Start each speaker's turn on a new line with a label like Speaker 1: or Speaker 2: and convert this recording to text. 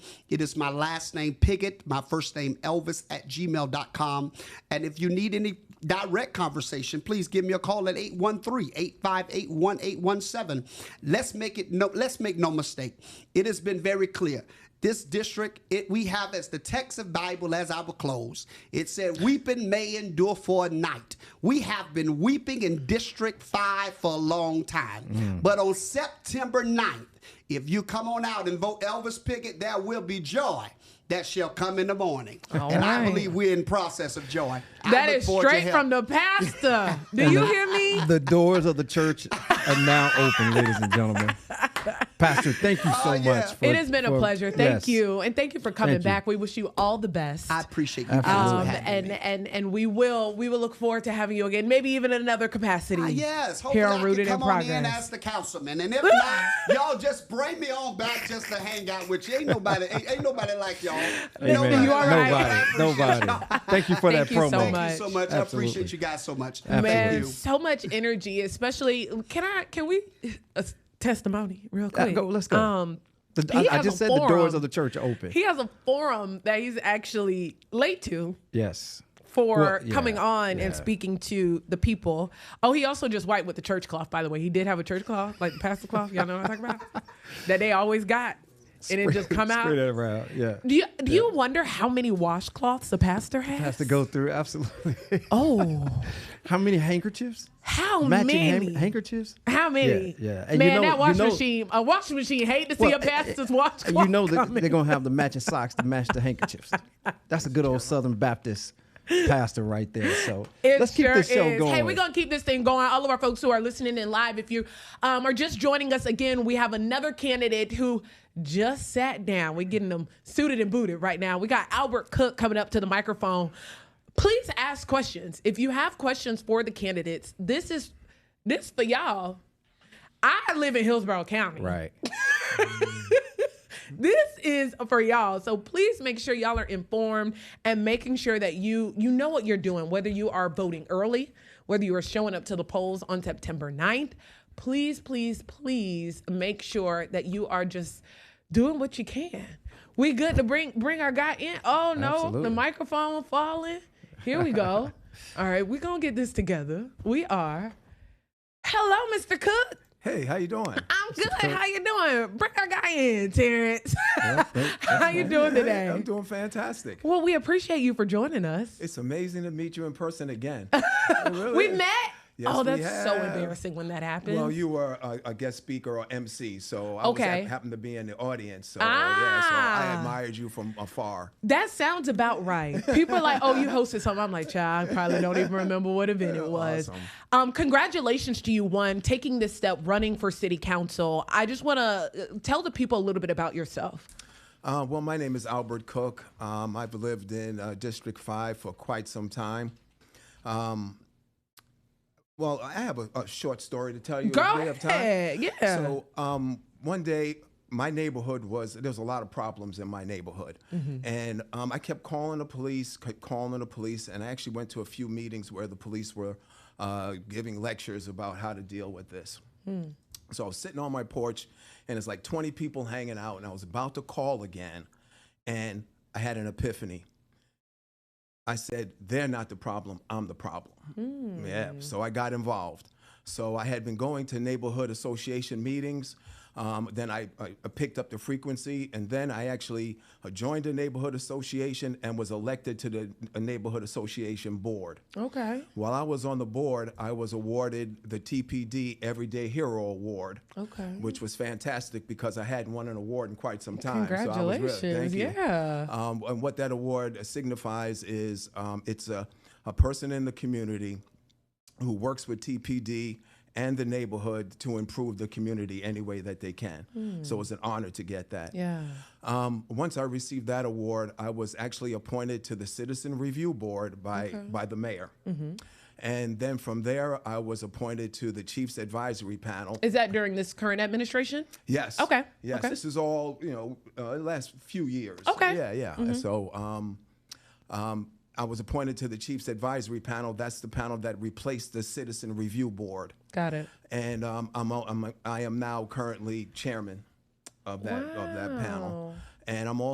Speaker 1: It is my last name, Piggott, my first name, Elvis, at gmail.com. And if you need any direct conversation, please give me a call at 813-858-1817. Let's make it no let's make no mistake. It has been very clear. This district, it we have as the text of Bible as I will close. It said, Weeping may endure for a night. We have been weeping in District 5 for a long time. But on September 9th, if you come on out and vote Elvis Pickett, there will be joy that shall come in the morning. and I
Speaker 2: right.
Speaker 1: believe we're in process of joy. I
Speaker 2: That
Speaker 1: look
Speaker 2: is
Speaker 1: forward to
Speaker 2: straight
Speaker 1: help.
Speaker 2: from the pastor. Do you hear me?
Speaker 3: The doors of the church are now open, ladies and gentlemen. Pastor, thank you so
Speaker 1: Oh, yeah.
Speaker 3: much. For,
Speaker 2: It has been a
Speaker 3: for-
Speaker 2: pleasure. Thank
Speaker 3: yes.
Speaker 2: you, and thank you for coming
Speaker 3: Thank you.
Speaker 2: back. We wish you all the best.
Speaker 1: I appreciate you guys for
Speaker 2: um,
Speaker 1: having
Speaker 2: and
Speaker 1: me.
Speaker 2: and and we will we will look forward to having you again, maybe even in another capacity.
Speaker 1: Ah, yes, hopefully
Speaker 2: here
Speaker 1: I
Speaker 2: on Rooted
Speaker 1: can
Speaker 2: in
Speaker 1: come on in
Speaker 2: Progress.
Speaker 1: as the councilman, and if not, y'all just bring me on back just to hang out with you. Ain't nobody, ain't, ain't nobody like y'all.
Speaker 3: Amen.
Speaker 1: Nobody
Speaker 2: You all
Speaker 1: like
Speaker 2: right?
Speaker 1: y'all. I appreciate
Speaker 3: Nobody.
Speaker 1: y'all.
Speaker 3: Nobody. Thank you for
Speaker 2: Thank
Speaker 3: that
Speaker 2: you so
Speaker 3: promo.
Speaker 1: Thank you so much. I
Speaker 3: Absolutely.
Speaker 1: appreciate you guys so much.
Speaker 3: Absolutely.
Speaker 2: Man,
Speaker 1: Thank you.
Speaker 2: so much energy, especially. Can I? Can we? Uh, testimony, real
Speaker 3: Uh,
Speaker 2: quick.
Speaker 3: go- let's go.
Speaker 2: Um,
Speaker 3: The-
Speaker 2: he
Speaker 3: I, I
Speaker 2: has
Speaker 3: just
Speaker 2: a
Speaker 3: said the doors
Speaker 2: forum.
Speaker 3: of the church are open.
Speaker 2: he has a forum that he's actually late to
Speaker 3: yes.
Speaker 2: for
Speaker 3: Well, yeah,
Speaker 2: coming on
Speaker 3: yeah.
Speaker 2: and speaking to the people. Oh, he also just wiped with the church cloth, by the way. He did have a church cloth, like the pastor cloth. Y'all know what I'm talking about? that they always got, and it just come out.
Speaker 3: Spread it around. Yeah.
Speaker 2: Do you do you wonder how many washcloths the pastor has?
Speaker 3: Has to go through. Absolutely.
Speaker 2: Oh,
Speaker 3: How many handkerchiefs?
Speaker 2: how
Speaker 3: Matching hand-
Speaker 2: many?
Speaker 3: handkerchiefs?
Speaker 2: How many?
Speaker 3: Yeah, yeah. And
Speaker 2: Man,
Speaker 3: you know-
Speaker 2: that
Speaker 3: you
Speaker 2: washing
Speaker 3: know-
Speaker 2: machine, a washing machine hate to see
Speaker 3: Well,
Speaker 2: a pastor's
Speaker 3: And
Speaker 2: washcloth.
Speaker 3: you know that
Speaker 2: coming.
Speaker 3: they're gonna have the matching socks to match the handkerchiefs. That's a good old Southern Baptist pastor right there. So
Speaker 2: It
Speaker 3: let's keep
Speaker 2: sure
Speaker 3: this show
Speaker 2: is.
Speaker 3: going.
Speaker 2: Hey, we're gonna keep this thing going. All of our folks who are listening in live, if you um, are just joining us again, we have another candidate who just sat down. We're getting them suited and booted right now. We got Albert Cook coming up to the microphone. Please ask questions. If you have questions for the candidates, this is this for y'all. I live in Hillsborough County.
Speaker 3: right.
Speaker 2: this is for y'all so please make sure y'all are informed and making sure that you you know what you're doing whether you are voting early whether you are showing up to the polls on september 9th please please please make sure that you are just doing what you can we good to bring bring our guy in oh no the
Speaker 3: Absolutely.
Speaker 2: microphone falling here we go all right we're gonna get this together we are hello mr cook
Speaker 4: Hey, how you doing?
Speaker 2: I'm good. How you doing? Bring our guy in, Terrence. How you doing
Speaker 4: Hey,
Speaker 2: today?
Speaker 4: I'm doing fantastic.
Speaker 2: Well, we appreciate you for joining us.
Speaker 4: It's amazing to meet you in person again. It really
Speaker 2: We
Speaker 4: is.
Speaker 2: met.
Speaker 4: Yes,
Speaker 2: oh,
Speaker 4: we
Speaker 2: that's so
Speaker 4: have.
Speaker 2: embarrassing when that happens.
Speaker 4: Well, you were a, a guest speaker or MC, so I was,
Speaker 2: Okay.
Speaker 4: hap- happened to be in the audience. So, yeah, so
Speaker 2: Ah.
Speaker 4: I admired you from afar.
Speaker 2: that sounds about right. People are like, "Oh, you hosted something." I'm like, "Child, I probably don't even remember what event it was."
Speaker 4: Awesome.
Speaker 2: Um, congratulations to you, one, taking this step, running for city council. I just want to tell the people a little bit about yourself.
Speaker 4: Uh, well, my name is Albert Cook. Um, I've lived in uh, District 5 for quite some time. Um, well, I have a, a short story to tell you. if
Speaker 2: Go
Speaker 4: we have time.
Speaker 2: ahead. Yeah.
Speaker 4: So um, one day, my neighborhood was there was a lot of problems in my neighborhood,
Speaker 2: Mm-hmm.
Speaker 4: and um, I kept calling the police, kept calling the police, and I actually went to a few meetings where the police were uh, giving lectures about how to deal with this. So I was sitting on my porch, and it's like 20 people hanging out, and I was about to call again, and I had an epiphany. I said, they're not the problem, I'm the problem. Yeah, so I got involved. So I had been going to neighborhood association meetings. Um, then I, I I picked up the frequency, and then I actually uh, joined a neighborhood association and was elected to the a neighborhood association board.
Speaker 2: Okay.
Speaker 4: While I was on the board, I was awarded the TPD Everyday Hero Award.
Speaker 2: Okay.
Speaker 4: Which was fantastic because I hadn't won an award in quite some time.
Speaker 2: Congratulations.
Speaker 4: So I was really, thank you.
Speaker 2: yeah.
Speaker 4: Um, and what that award signifies is um, it's a, a person in the community who works with TPD and the neighborhood to improve the community any way that they can. So it's an honor to get that.
Speaker 2: Hmm. Yeah.
Speaker 4: Um, once I received that award, I was actually appointed to the Citizen Review Board by by the mayor.
Speaker 2: Mm-hmm.
Speaker 4: And then from there, I was appointed to the Chief's Advisory Panel.
Speaker 2: Is that during this current administration?
Speaker 4: Yes.
Speaker 2: Okay,
Speaker 4: Yes.
Speaker 2: okay.
Speaker 4: This is all you know. Uh, the last few years.
Speaker 2: Okay. Mm-hmm.
Speaker 4: Yeah, yeah. So, um, um, I was appointed to the Chiefs Advisory Panel. That's the panel that replaced the Citizen Review Board,
Speaker 2: Got it.
Speaker 4: and um, I'm, a- I'm a- I am now currently chairman of that of that panel,
Speaker 2: Wow.
Speaker 4: and I'm also